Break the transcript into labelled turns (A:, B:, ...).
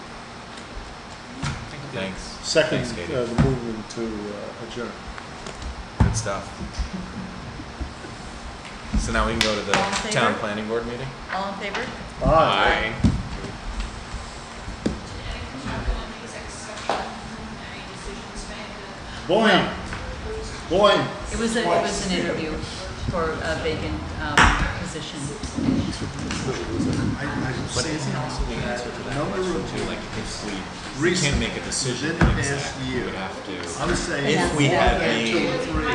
A: Thanks.
B: Second,
A: Thanks, Katie.
B: uh, the movement to uh, adjourn.
A: Good stuff. So now we can go to the
C: All in favor?
A: town planning board meeting?
C: All in favor?
D: And it comes up in an exec section, any decisions made.
B: Boing, boing.
C: It was, a- it was an interview for a vacant um, position.
A: But isn't also the answer to that
E: Number
A: question
E: of
A: too, like if we, we
E: recent
A: can't make a decision
E: within the
A: in
E: past
A: exec, we
E: year.
A: would have to.
E: I'm saying.
A: If we
E: one
A: had
E: and two
A: made-
E: and three.